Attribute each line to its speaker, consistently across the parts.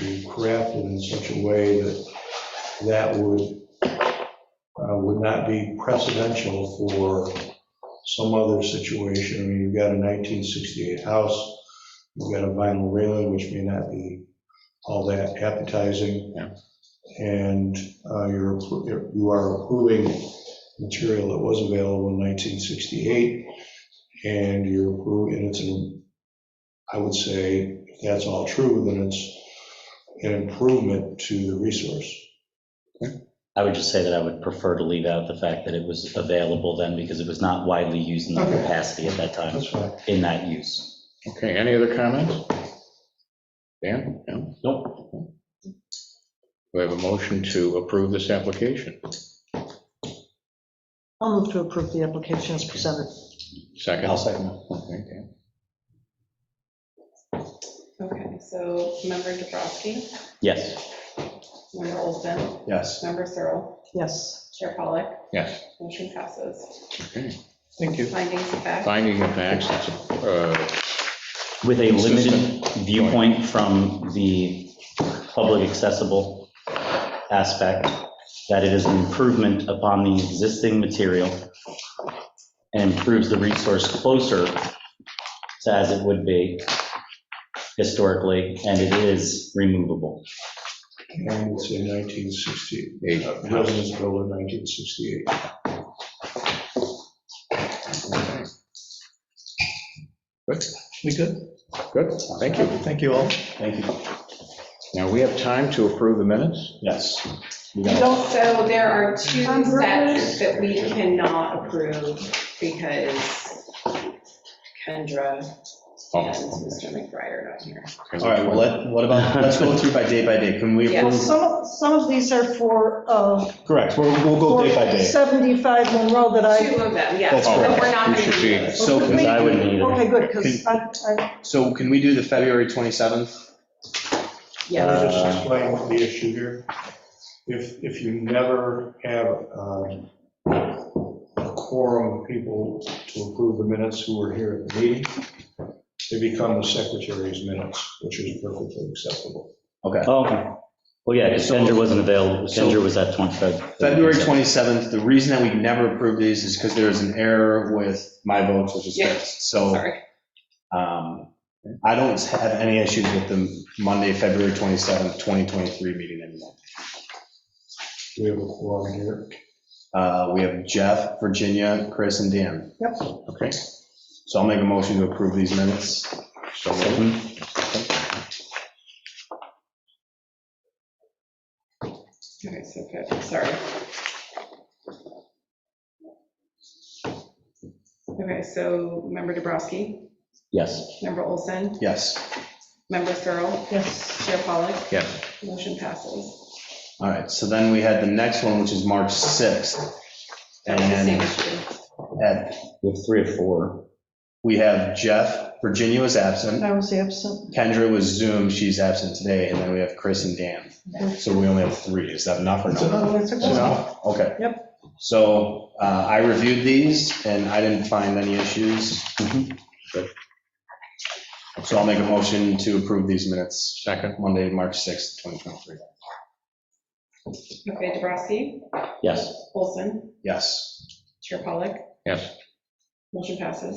Speaker 1: be crafted in such a way that that would, uh, would not be precedential for some other situation. I mean, you've got a 1968 house, you've got a vinyl railing, which may not be all that appetizing.
Speaker 2: Yeah.
Speaker 1: And uh, you're, appro- you are approving material that was available in 1968, and you're approving, and it's an, I would say, if that's all true, then it's an improvement to the resource.
Speaker 2: I would just say that I would prefer to leave out the fact that it was available then because it was not widely used in the
Speaker 1: Okay.
Speaker 2: capacity at that time
Speaker 1: That's fine.
Speaker 2: in that use.
Speaker 3: Okay, any other comments? Dan? No? Nope. We have a motion to approve this application.
Speaker 4: I'll move to approve the application as presented.
Speaker 3: 2nd
Speaker 2: I'll second that.
Speaker 3: Okay, Dan.
Speaker 5: Okay, so member Dubrowski,
Speaker 2: Yes,
Speaker 5: member Olson,
Speaker 1: Yes.
Speaker 5: member Searle,
Speaker 4: Yes,
Speaker 5: Chair Pollak,
Speaker 3: Yes,
Speaker 5: motion passes.
Speaker 3: okay.
Speaker 1: Thank you.
Speaker 5: Findings of fact,
Speaker 3: Finding of facts, uh,
Speaker 2: with a limited viewpoint from the public accessible aspect, that it is an improvement upon the existing material and improves the resource closer to as it would be historically, and it is removable.
Speaker 1: And it's in 1960,
Speaker 3: eight.
Speaker 1: uh, residence built in 1968.
Speaker 3: Okay. Good,
Speaker 1: We good?
Speaker 3: good, thank you.
Speaker 1: Thank you all.
Speaker 2: Thank you.
Speaker 3: Now, we have time to approve the minutes?
Speaker 2: Yes. We got it.
Speaker 5: also, there are two
Speaker 4: Um,
Speaker 5: sets that we cannot approve because Kendra
Speaker 3: Oh,
Speaker 5: and Mr. McBride are not here.
Speaker 3: okay.
Speaker 6: All right, well, let- what about, let's go through by day by day. Can we
Speaker 4: well,
Speaker 6: approve?
Speaker 4: some, some of these are for, uh.
Speaker 6: Correct, we'll, we'll go day by day.
Speaker 4: 75 Monroe that I.
Speaker 5: Two of them, yes,
Speaker 6: That's
Speaker 5: but
Speaker 6: correct.
Speaker 5: we're not
Speaker 3: We
Speaker 5: going
Speaker 3: should
Speaker 5: to
Speaker 3: be-
Speaker 5: do this.
Speaker 6: So,
Speaker 4: Because
Speaker 2: I wouldn't either.
Speaker 4: Okay, good, because I, I,
Speaker 6: so can we do the February 27th?
Speaker 1: Can
Speaker 5: Yes,
Speaker 1: I just
Speaker 2: Uh,
Speaker 1: explain the issue here? If, if you never have um, a quorum of people to approve the minutes who were here at the meeting, they become the secretary's minutes, which is perfectly acceptable.
Speaker 6: Okay.
Speaker 2: Oh, Okay. Well, yeah, because Kendra wasn't available.
Speaker 6: So-
Speaker 2: Kendra was at 25.
Speaker 6: February 27th, the reason that we never approved these is because there was an error with my votes, which is
Speaker 5: Yeah.
Speaker 6: fixed.
Speaker 3: Uh,
Speaker 6: So
Speaker 5: sorry.
Speaker 6: um, I don't have any issues with the Monday, February 27th, 2023 meeting anymore.
Speaker 1: Do we have a quorum here?
Speaker 6: Uh, We have Jeff, Virginia, Chris, and Dan.
Speaker 4: Yep.
Speaker 6: Okay, so I'll make a motion to approve these minutes.
Speaker 3: So moved.
Speaker 2: Mhm.
Speaker 5: Okay, so good, sorry. Okay, so member Dubrowski,
Speaker 2: Yes.
Speaker 5: member Olson,
Speaker 6: Yes.
Speaker 5: member Searle,
Speaker 4: yes,
Speaker 5: Chair Pollak,
Speaker 3: Yes,
Speaker 5: motion passes.
Speaker 6: All right, so then we had the next one, which is March 6th.
Speaker 5: That was the same
Speaker 6: And
Speaker 5: issue.
Speaker 6: at-
Speaker 2: We have three or four.
Speaker 6: we have Jeff, Virginia was absent,
Speaker 4: I was absent.
Speaker 6: Kendra was Zoom, she's absent today, and then we have Chris and Dan. So we only have three, is that enough or not? Enough? Okay. Yep. So uh, I reviewed these, and I didn't find any issues.
Speaker 2: Mhm.
Speaker 6: Good. So I'll make a motion to approve these minutes,
Speaker 3: second,
Speaker 6: Monday, March 6th, 2023.
Speaker 5: Okay, Dubrowski,
Speaker 2: Yes.
Speaker 5: Olson,
Speaker 6: Yes.
Speaker 5: Chair Pollak,
Speaker 3: yes,
Speaker 5: motion passes.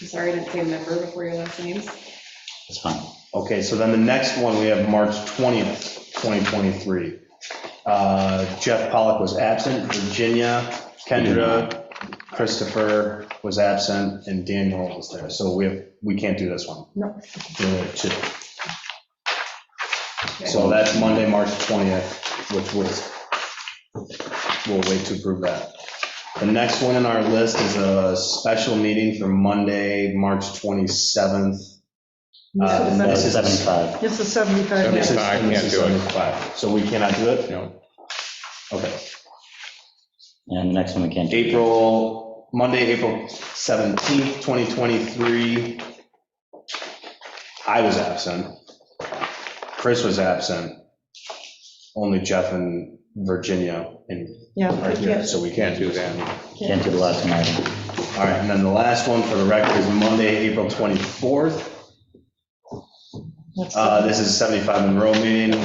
Speaker 5: I'm sorry I didn't say member before your last names.
Speaker 2: That's fine.
Speaker 6: Okay, so then the next one, we have March 20th, 2023. Uh, Jeff Pollock was absent, Virginia, Kendra, Christopher was absent, and Daniel was there. So we have, we can't do this one.
Speaker 4: No.
Speaker 6: We only have two. So that's Monday, March 20th, which was, we'll wait to approve that. The next one on our list is a special meeting for Monday, March 27th, Uh,
Speaker 4: This is-
Speaker 6: no.
Speaker 2: That's 75.
Speaker 4: This is 75, yes.
Speaker 6: This is-
Speaker 3: 75,
Speaker 6: this is
Speaker 3: can't do it.
Speaker 6: 75. So we cannot do it?
Speaker 3: no,
Speaker 6: Okay.
Speaker 2: And the next one we can't do.
Speaker 6: April, Monday, April 17th, 2023. I was absent. Chris was absent. Only Jeff and Virginia and
Speaker 4: Yeah,
Speaker 6: are here,
Speaker 4: yeah,
Speaker 6: so we can't do that.
Speaker 2: Can't do the last one either.
Speaker 6: All right, and then the last one for the record Uh, is Monday, April 24th.
Speaker 4: That's-
Speaker 6: Uh, This is 75 Monroe meeting.